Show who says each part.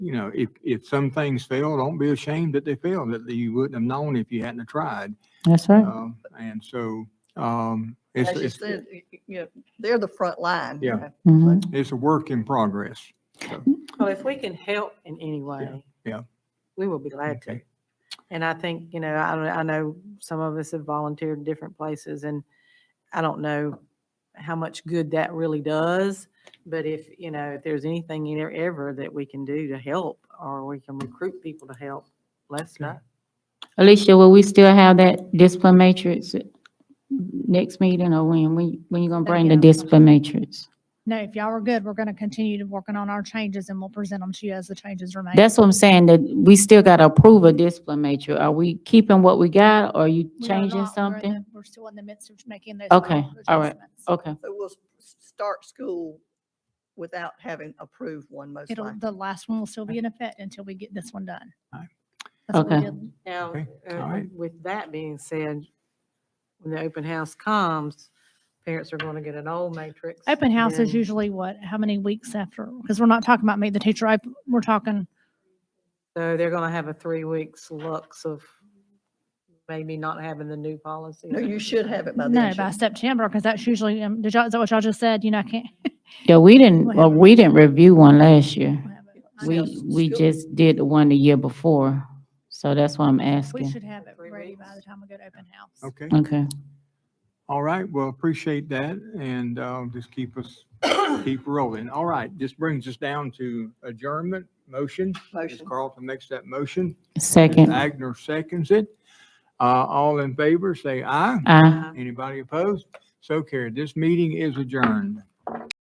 Speaker 1: you know, if, if some things fail, don't be ashamed that they failed, that you wouldn't have known if you hadn't have tried.
Speaker 2: That's right.
Speaker 1: Um, And so, um, it's,
Speaker 3: As you
Speaker 1: it's,
Speaker 3: said, y- y- you know, they're the front line. you
Speaker 1: Yeah.
Speaker 3: know.
Speaker 2: Mhm.
Speaker 1: it's a work in progress.
Speaker 4: Well, if we can help in any way.
Speaker 1: yeah.
Speaker 4: We will be glad to.
Speaker 1: Okay.
Speaker 4: And I think, you know, I, don't- I know some of us have volunteered in different places and I don't know how much good that really does. But if, you know, if there's anything in there ever that we can do to help or we can recruit people to help, let us
Speaker 1: Okay.
Speaker 4: know.
Speaker 2: Alicia, will we still have that discipline matrix next meeting or when, when, when you gonna bring the
Speaker 5: Again.
Speaker 2: discipline matrix?
Speaker 5: No, if y'all are good, we're going to continue to working on our changes and we'll present them to you as the changes remain.
Speaker 2: That's what I'm saying, that we still gotta approve a discipline matrix. Are we keeping what we got or are you
Speaker 5: We
Speaker 2: changing
Speaker 5: are not- we're in the-
Speaker 2: something?
Speaker 5: We're still in the midst of making those.
Speaker 2: Okay,
Speaker 5: final
Speaker 2: all right. Oh,
Speaker 5: adjustments.
Speaker 2: Okay,
Speaker 3: So we'll s- start school without having approved one most
Speaker 5: It'll,
Speaker 3: likely.
Speaker 5: the last one will still be in effect until we get this one done. That's what we
Speaker 2: Okay.
Speaker 5: did.
Speaker 4: Now,
Speaker 1: Okay,
Speaker 4: uh,
Speaker 1: all right.
Speaker 4: with that being said, when the open house comes, parents are going to get an old matrix.
Speaker 5: Open house is
Speaker 4: then-
Speaker 5: usually what, how many weeks after? Because we're not talking about meet the teacher, op- we're talking,
Speaker 4: So they're going to have a three weeks lux of maybe not having the new policy.
Speaker 3: No, you should have it by
Speaker 5: no,
Speaker 3: then.
Speaker 5: by
Speaker 3: shouldn't
Speaker 5: September, because that's usually, um, did y'all, is that what y'all just said? You know, I can't.
Speaker 2: yeah, we didn't,
Speaker 5: What
Speaker 2: well,
Speaker 5: happened?
Speaker 2: we didn't review one last year.
Speaker 3: I know,
Speaker 2: We,
Speaker 3: s-
Speaker 2: we
Speaker 3: still-
Speaker 2: just did the one the year before, so that's why I'm
Speaker 5: We
Speaker 2: asking.
Speaker 5: should have it
Speaker 4: Three
Speaker 5: ready by
Speaker 4: weeks.
Speaker 5: the time we go to open house.
Speaker 1: Okay,
Speaker 2: Okay,
Speaker 1: all right, well, appreciate that, and, uh, just keep us, keep rolling. All right, this brings us down to adjournment, motion. Ms.
Speaker 3: Motion.
Speaker 1: Carlton makes that motion.
Speaker 2: second,
Speaker 1: Agner seconds it. Uh, all in favor, say aye.
Speaker 2: aye.
Speaker 4: Uh,
Speaker 1: Anybody opposed? So carried. This meeting is adjourned.